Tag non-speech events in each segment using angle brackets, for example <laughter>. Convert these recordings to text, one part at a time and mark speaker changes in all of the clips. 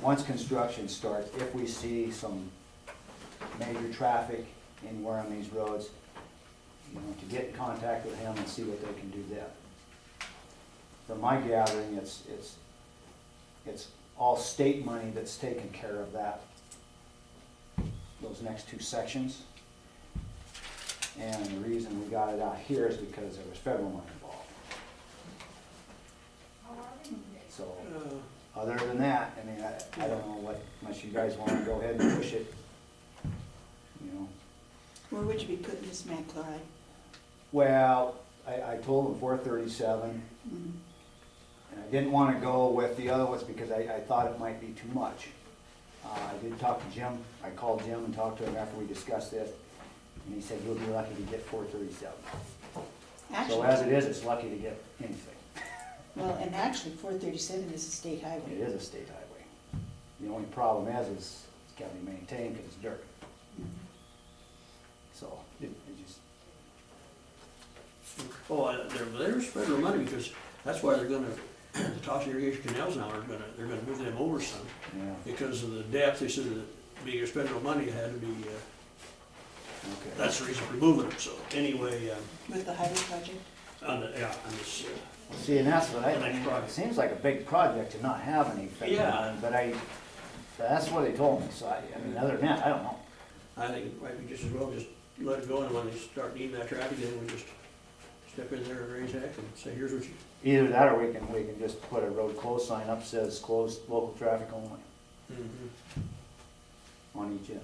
Speaker 1: once construction starts, if we see some major traffic anywhere on these roads, you know, to get in contact with him and see what they can do there. From my gathering, it's, it's, it's all state money that's taken care of that, those next two sections. And the reason we got it out here is because there was federal money involved. So, other than that, I mean, I, I don't know what, unless you guys wanna go ahead and push it, you know.
Speaker 2: Where would you be putting this mag chloride?
Speaker 1: Well, I, I told them four thirty-seven,
Speaker 2: Mm.
Speaker 1: and I didn't wanna go with the other ones because I, I thought it might be too much. Uh, I did talk to Jim, I called Jim and talked to him after we discussed this, and he said, you'll be lucky to get four thirty-seven. So as
Speaker 2: Actually,
Speaker 1: it is, it's lucky to get anything.
Speaker 2: well, and actually, four thirty-seven is a state
Speaker 1: It
Speaker 2: highway.
Speaker 1: is a state highway. The only problem is, is it's gotta be maintained because it's dirt. So, it it just,
Speaker 3: Oh, I- there, there's federal money because that's why they're gonna, <clears throat> the top irrigation canals now are gonna, they're gonna move them over some.
Speaker 1: yeah,
Speaker 3: Because of the depth, they said that being it's federal money it had to be, uh,
Speaker 1: okay.
Speaker 3: that's the reason for moving them. So anyway, um,
Speaker 2: With the highway project?
Speaker 3: on the, yeah, on this, uh,
Speaker 1: See, and that's what I,
Speaker 3: The next
Speaker 1: it
Speaker 3: project.
Speaker 1: seems like a big project to not have any federal
Speaker 3: Yeah.
Speaker 1: money, but I, that's what they told me, so I, I mean, other than that, I don't know.
Speaker 3: I think it might be just as well just let it go and when they start needing that traffic, then we just step in there and raise heck and say, here's what you,
Speaker 1: Either that or we can, we can just put a road closed sign up says closed local traffic only on each end.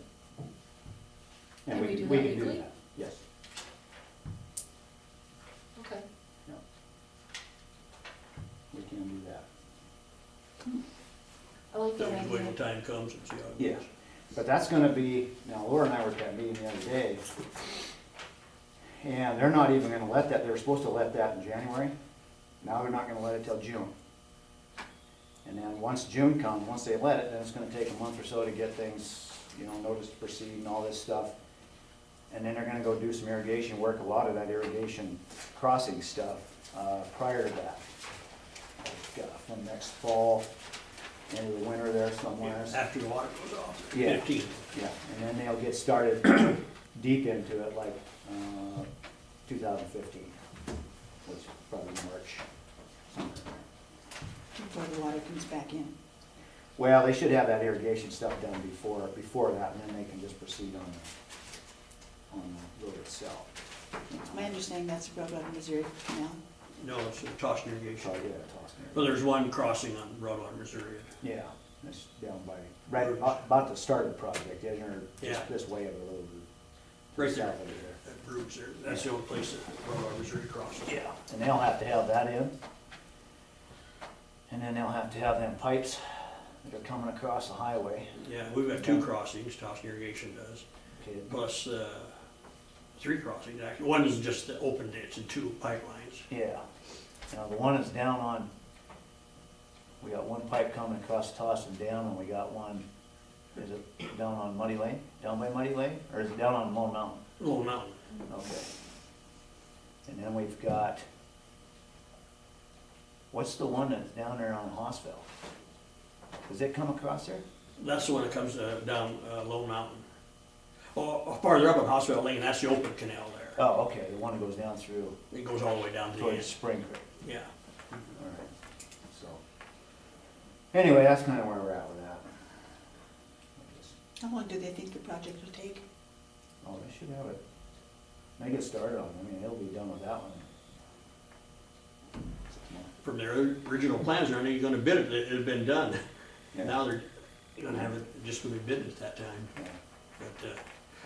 Speaker 1: And
Speaker 4: Can we
Speaker 1: we,
Speaker 4: do
Speaker 1: we
Speaker 4: that
Speaker 1: can do
Speaker 4: legally?
Speaker 1: that, yes.
Speaker 4: Okay.
Speaker 1: We can do that.
Speaker 4: I like that
Speaker 3: then just wait till
Speaker 4: idea.
Speaker 3: time comes and see how it
Speaker 1: Yeah.
Speaker 3: goes.
Speaker 1: But that's gonna be, now Laura and I were at that meeting the other day. And they're not even gonna let that, they were supposed to let that in January. Now they're not gonna let it till June. And then once June comes, once they let it, then it's gonna take a month or so to get things, you know, notice to proceed and all this stuff. And then they're gonna go do some irrigation work, a lot of that irrigation crossing stuff, uh, prior to that. Uh, From next fall into the winter there somewhere.
Speaker 3: Yeah, After the water goes off,
Speaker 1: Yeah.
Speaker 3: fifteen.
Speaker 1: Yeah, and then they'll get started <coughs> deep into it like uh, 2015, which is probably March. somewhere in there.
Speaker 2: Before the water comes back in.
Speaker 1: Well, they should have that irrigation stuff done before, before that, and then they can just proceed on, the- on the road itself.
Speaker 2: My understanding, that's the road out of Missouri Canal.
Speaker 3: No, it's a toss irrigation.
Speaker 1: So, Oh, yeah, toss and everything.
Speaker 3: Well, there's one crossing on Broadwater, Missouri.
Speaker 1: Yeah, that's down by, right, about about to start the project, isn't it, or
Speaker 3: Yeah.
Speaker 1: just this way of the road?
Speaker 3: Right there.
Speaker 1: south of there.
Speaker 3: That Brooks there, that's the only place that Broadwater, Missouri crosses.
Speaker 1: Yeah, and they'll have to have that in. And then they'll have to have them pipes that are coming across the highway.
Speaker 3: Yeah, we've got two crossings, Toss irrigation does,
Speaker 1: Okay,
Speaker 3: plus, uh, three crossings, actually. One is just the open ditch and two pipelines.
Speaker 1: Yeah. Now, the one that's down on, we got one pipe coming across Tossin down, and we got one, is it down on Muddy Lane? Down by Muddy Lane, or is it down on Lone Mountain?
Speaker 3: Little Mountain,
Speaker 1: Okay. And then we've got, what's the one that's down there on Hossville? Does it come across there?
Speaker 3: that's the one that comes uh, down uh, Low Mountain. Oh, oh, farther up on Hospital Lane, that's the open canal there.
Speaker 1: Oh, okay, the one that goes down through.
Speaker 3: It goes all the way down to the
Speaker 1: towards
Speaker 3: end,
Speaker 1: Spring Creek,
Speaker 3: yeah.
Speaker 1: all right, so. Anyway, that's kind of where we're at with that.
Speaker 2: How long do they think the project will take?
Speaker 1: Oh, they should have it, they get started on, it. I mean, they'll be done with that one.
Speaker 3: From their original plans, they're not even gonna bid it, it had been done.
Speaker 1: Yeah.
Speaker 3: Now they're gonna have it, just gonna be bid at that time.
Speaker 1: Yeah,
Speaker 3: But, uh,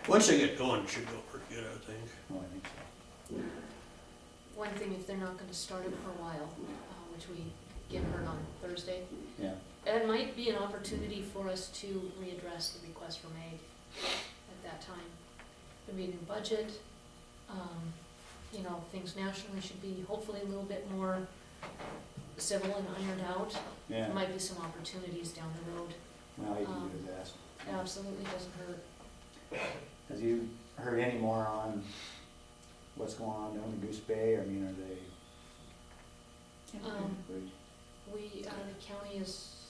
Speaker 3: once they get going, it should go pretty good, I think.
Speaker 1: well, I think so.
Speaker 4: One thing, if they're not gonna start it for a while, uh, which we get heard on Thursday,
Speaker 1: Yeah,
Speaker 4: that might be an opportunity for us to readdress the request for aid at that time. There'd be a new budget, um, you know, things nationally should be hopefully a little bit more civil and ironed out. There
Speaker 1: yeah,
Speaker 4: Might be some opportunities down the road,
Speaker 1: well, you can
Speaker 4: um,
Speaker 1: do that.
Speaker 4: absolutely doesn't hurt.
Speaker 1: Have you heard any more on what's going on down in Goose Bay, I mean, are they,
Speaker 4: Um, We, uh, Um, the county is